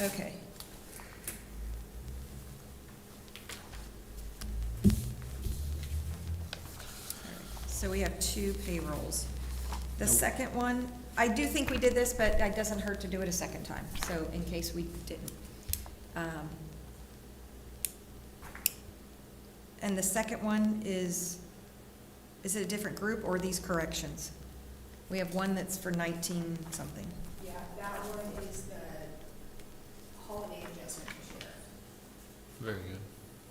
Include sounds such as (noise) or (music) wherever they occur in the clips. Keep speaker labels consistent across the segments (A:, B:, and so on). A: Okay. So we have two payrolls. The second one, I do think we did this, but it doesn't hurt to do it a second time, so in case we didn't. Um, And the second one is, is it a different group or these corrections? We have one that's for nineteen something.
B: Yeah, that one is the holiday adjustment for sheriff.
C: Very good.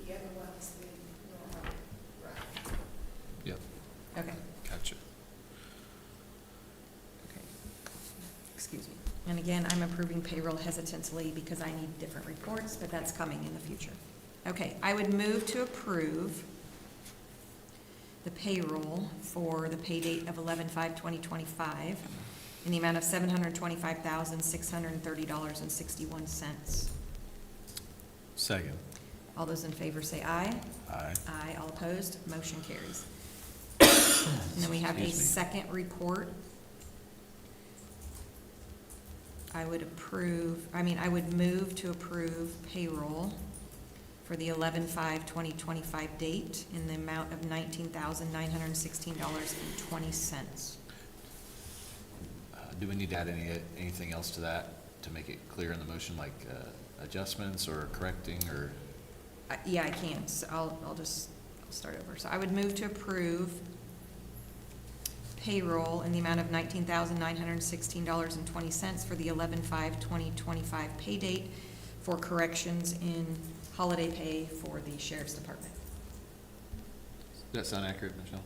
B: The other one is the normal route.
A: Okay.
C: Gotcha.
A: Okay. Excuse me. And again, I'm approving payroll hesitantly because I need different reports, but that's coming in the future. Okay, I would move to approve the payroll for the pay date of 11/5/2025 in the amount of $725,630.61.
D: Second.
A: All those in favor say aye.
D: Aye.
A: Aye, all opposed, motion carries.
D: (coughs)
A: And then we have a
D: Excuse me.
A: second report. I would approve, I mean, I would move to approve payroll for the 11-5-2025 date in the amount of nineteen thousand nine hundred and sixteen dollars and twenty cents.
C: Uh, Do we need to add any, anything else to that to make it clear in the motion, like uh, adjustments or correcting or?
A: I- Yeah, I can, so I'll, I'll just, I'll start over. So I would move to approve payroll in the amount of nineteen thousand nine hundred and sixteen dollars and twenty cents for the eleven five twenty twenty-five pay date for corrections in holiday pay for the sheriff's department.
C: Does that sound accurate, Michelle?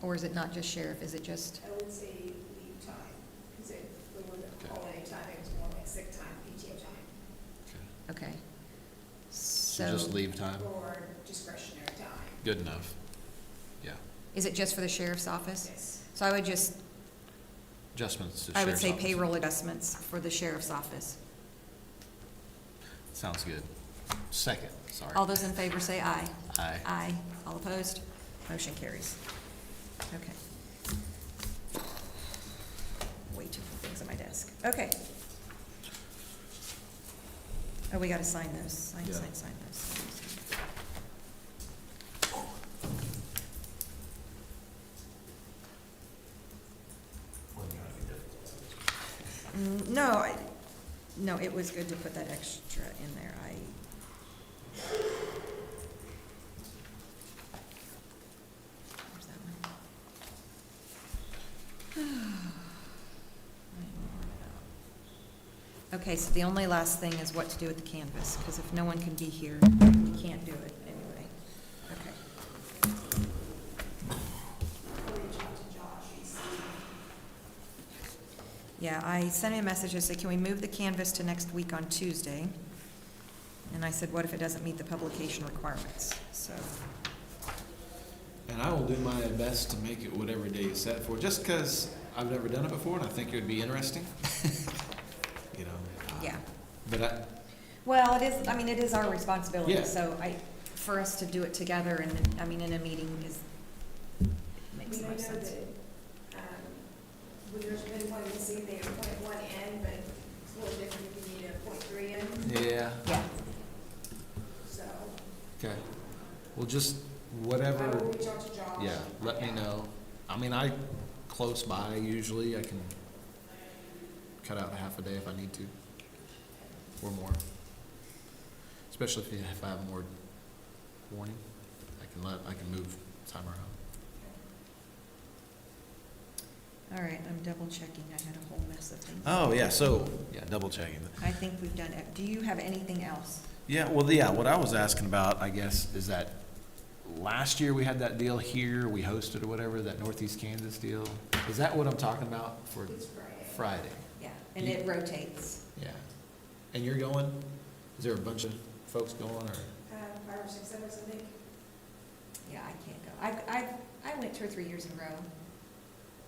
A: Or is it not just sheriff, is it just,
B: I would say leave time, because it, the one
C: Okay.
B: that holiday time, it was more like sick time, PTO time,
C: Okay.
A: okay.
C: So
A: So,
C: just leave time?
B: or discretionary time.
C: Good enough. Yeah.
A: is it just for the sheriff's office?
B: Yes.
A: So I would just,
C: Adjustments to
A: I would
C: sheriff's
A: say
C: office.
A: payroll adjustments for the sheriff's office.
C: Sounds good. Second, sorry.
A: All those in favor say aye.
C: Aye.
A: Aye. All opposed? Motion carries. Okay. Way too many things on my desk. Okay. Oh, we gotta sign those. Sign,
C: Yeah.
A: sign, sign those. Mm, No, I, no, it was good to put that extra in there. I, where's that one? I am worn out. Okay, so the only last thing is what to do with the canvas, because if no one can be here, we can't do it anyway. Okay. Yeah, I sent him a message, I said, can we move the canvas to next week on Tuesday? And I said, what if it doesn't meet the publication requirements? So,
D: And I will do my best to make it whatever day is set for, just because I've never done it before and I think it would be interesting. (laughs) You know? uh,
A: yeah.
D: But I,
A: Well, it is, I mean, it is our responsibility,
D: Yeah.
A: so I, for us to do it together and, then- I mean, in a meeting is, makes
B: I mean,
A: more
B: I know
A: sense.
B: that, um, when there's been one missing, they appoint one end, but it's a little different if you need a point three end,
D: yeah,
A: Yeah,
B: so.
D: okay. Well, just
B: I will
D: whatever,
B: reach out to Josh.
D: yeah, let me know. I mean, I, close by usually, I can cut out half a day if I need to, or more. Especially if, you- if I have more warning, I can let, I can move time around.
A: all right, I'm double checking, I had a whole mess of things.
E: Oh, yeah, so, yeah, double checking.
A: I think we've done, it. do you have anything else?
E: Yeah, well, yeah, what I was asking about, I guess,
C: Is that, last year we had that deal here, we hosted or whatever, that Northeast Kansas deal? Is that what I'm talking about for
B: It's Friday.
C: Friday?
A: Yeah, and it rotates.
D: Yeah. And you're going? Is there a bunch of folks going or?
B: Um, five or six of us, I think.
A: Yeah, I can't go. I, I, I went two or three years in a row.